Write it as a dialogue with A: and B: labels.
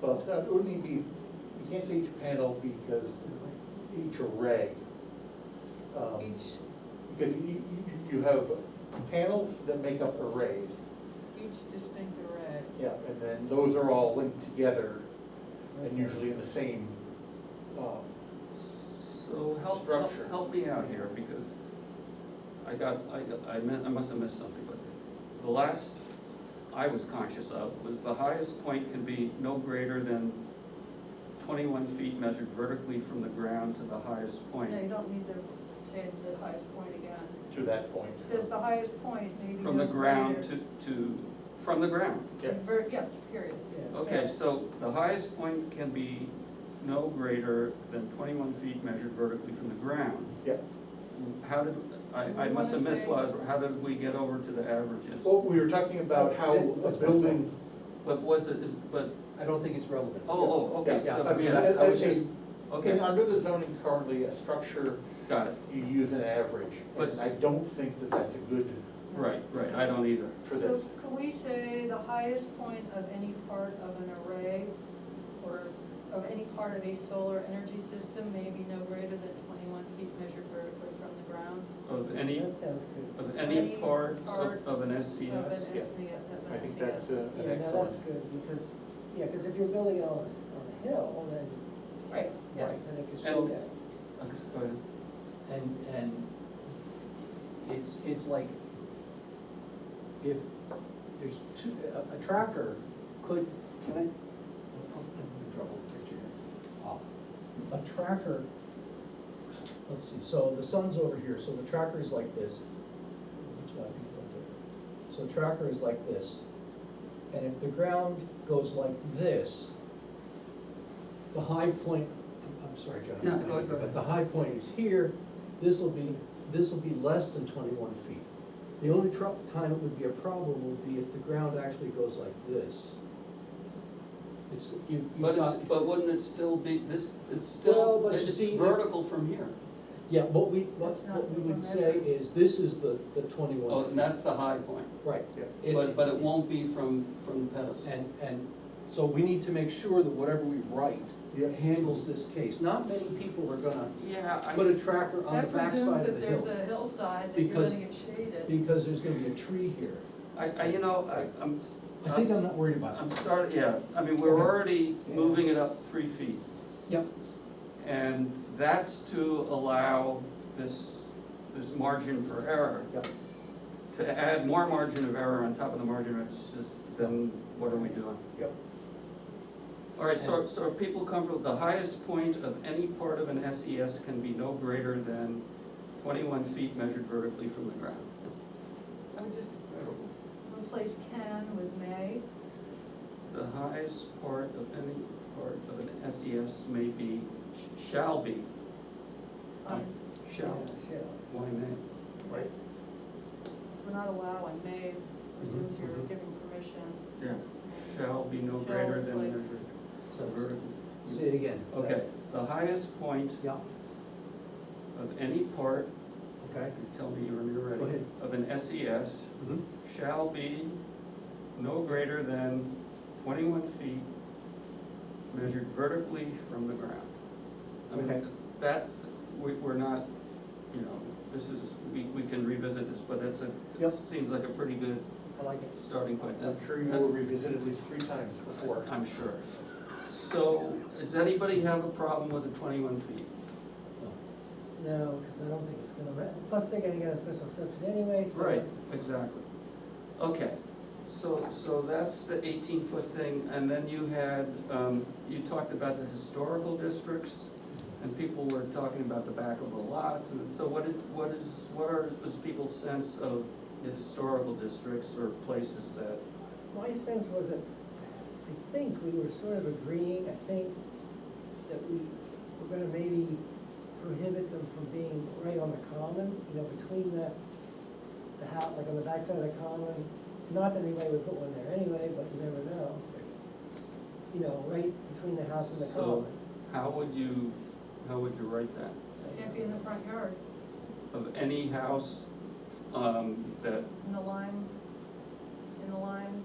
A: Well, it's not, it wouldn't even be, you can't say each panel because each array. um,
B: Each,
A: Because you, you, you have panels that make up arrays,
B: each distinct array.
A: yeah, and then those are all linked together and usually in the same, um,
C: So help,
A: Structure.
C: help, help me out here, because I got, I got, I meant, I must have missed something, but the last I was conscious of was the highest point can be no greater than twenty-one feet measured vertically from the ground to the highest point.
D: No, you don't need to say the highest point again.
A: to that point.
D: It says the highest point may be.
C: From the
D: no
C: ground
D: greater-
C: to, to, from the ground.
A: Yeah,
D: Ver- Yes, period.
C: Okay, so the highest point can be no greater than twenty-one feet measured vertically from the ground.
A: yeah.
C: How did, I, I
D: You
C: must have
D: wanna
C: missed
D: say-
C: last, how did we get over to the averages?
A: Well, we were talking about how a building,
C: But was it, is, but,
E: I don't think it's relevant.
C: oh, oh,
A: Yeah,
C: okay,
E: Yeah,
C: so,
E: I mean,
C: yeah,
E: I, I was just,
C: okay,
A: and under the zoning currently, a structure,
C: got it,
A: you use an average.
C: But-
A: And I don't think that that's a good
C: right, right, I don't either.
A: for
D: So
A: this.
D: can we say the highest point of any part of an array or of any part of a solar energy system may be no greater than twenty-one feet measured vertically from the ground?
C: Of any,
E: that sounds good.
C: of any
D: Any
C: part
D: part
C: of, of an
D: Of
C: SES,
D: an
A: yeah.
D: S- of an
A: I think
D: SES.
A: that's a- an
E: Yeah, now that's
A: excellent,
E: good, because, yeah, because if you're building it on a, s- on a hill, then,
D: Right, yeah.
E: right, then it could show
C: And-
E: that.
C: Uh, go ahead.
F: And, and it's, it's like, if there's two, a, a tracker could, can I, I'm in trouble with the picture here. Ah, A tracker, let's see, so the sun's over here, so the tracker is like this. That's why people don't do it. So tracker is like this, and if the ground goes like this, the high point, I'm- I'm sorry, John. I'm
C: No,
F: cutting
C: go-
F: you,
C: go ahead.
F: But the high point is here, this will be, this will be less than twenty-one feet. The only tro- time it would be a problem would be if the ground actually goes like this. It's, you, you've
C: But it's,
F: got-
C: but wouldn't it still be, this, it's
F: Well,
C: still,
F: but you
C: it's
F: see-
C: vertical from here,
F: yeah, what we, what,
D: That's not
F: what we
D: what
F: would
D: we're
F: say
D: measuring.
F: is, this is the, the
C: oh,
F: twenty-one
C: and
F: feet,
C: that's the high point,
F: right.
A: yeah.
C: but, but it won't be from, from the pedestal.
F: And, and so we need to make sure that whatever we write
A: Yeah.
F: handles this case. Not many people are gonna
C: Yeah, I.
F: put a tracker on the
D: That presumes
F: backside of
D: that
F: the
D: there's
F: hill,
D: a hillside that you're
F: Because-
D: letting it shade it.
F: because there's gonna be a tree here.
C: I, I, you know, I, I'm.
F: I think I'm not worried about
C: I'm
F: it.
C: starting, yeah, I mean, we're
F: Okay.
C: already moving it up three feet,
F: Yep,
C: and that's to allow this, this margin for error.
A: Yep.
C: To add more margin of error on top of the margin, of error, it's just, then what are we doing?
A: Yep.
C: All right, so, so are people comfortable, the highest point of any part of an SES can be no greater than twenty-one feet measured vertically from the ground?
B: I would just,
D: uh, Replace can with may.
C: The highest part of any part of an SES may be, sh- shall be,
D: Um,
C: shall,
E: Yeah,
C: why may?
A: Right.
D: Because we're not allowing, may presumes you're
F: Mhm, mhm.
D: giving permission.
C: Yeah, shall be no
D: Shall
C: greater
D: is
C: than
D: like-
C: measured. So vertical.
F: say it again.
C: Okay, the highest point
F: Yeah,
C: of any part,
F: okay.
C: you tell me when you're
F: Go
C: ready,
F: ahead.
C: of an SES
F: Mhm.
C: shall be no greater than twenty-one feet measured vertically from the ground. I
F: Okay.
C: mean, that's, we, we're not, you know, this is, we, we can revisit this, but it's a,
F: Yep.
C: it seems like a pretty good
F: I like it.
C: starting point.
A: I'm
C: That-
A: sure you
C: that-
A: will revisit at least three times before.
C: I'm sure. So, does anybody have a problem with the twenty-one feet?
F: Oh.
E: no, because I don't think it's gonna, re- plus they're gonna get a special exception anyway, so.
C: Right,
E: it's-
C: exactly. Okay, so, so that's the eighteen-foot thing, and then you had, um, you talked about the historical districts, and people were talking about the back of the lots, and so what is, what is, what are, is people's sense of the historical districts or places that,
E: My sense was that, I think we were sort of agreeing, I think, that we were gonna maybe prohibit them from being right on the common, you know, between the, the house, like on the backside of the common. Not that anybody would put one there anyway, but you never know. You know, right between the house and the
C: So-
E: common.
C: how would you, how would you write that?
D: Can't be in the front yard,
C: Of any house, um, that
D: in the line, in the line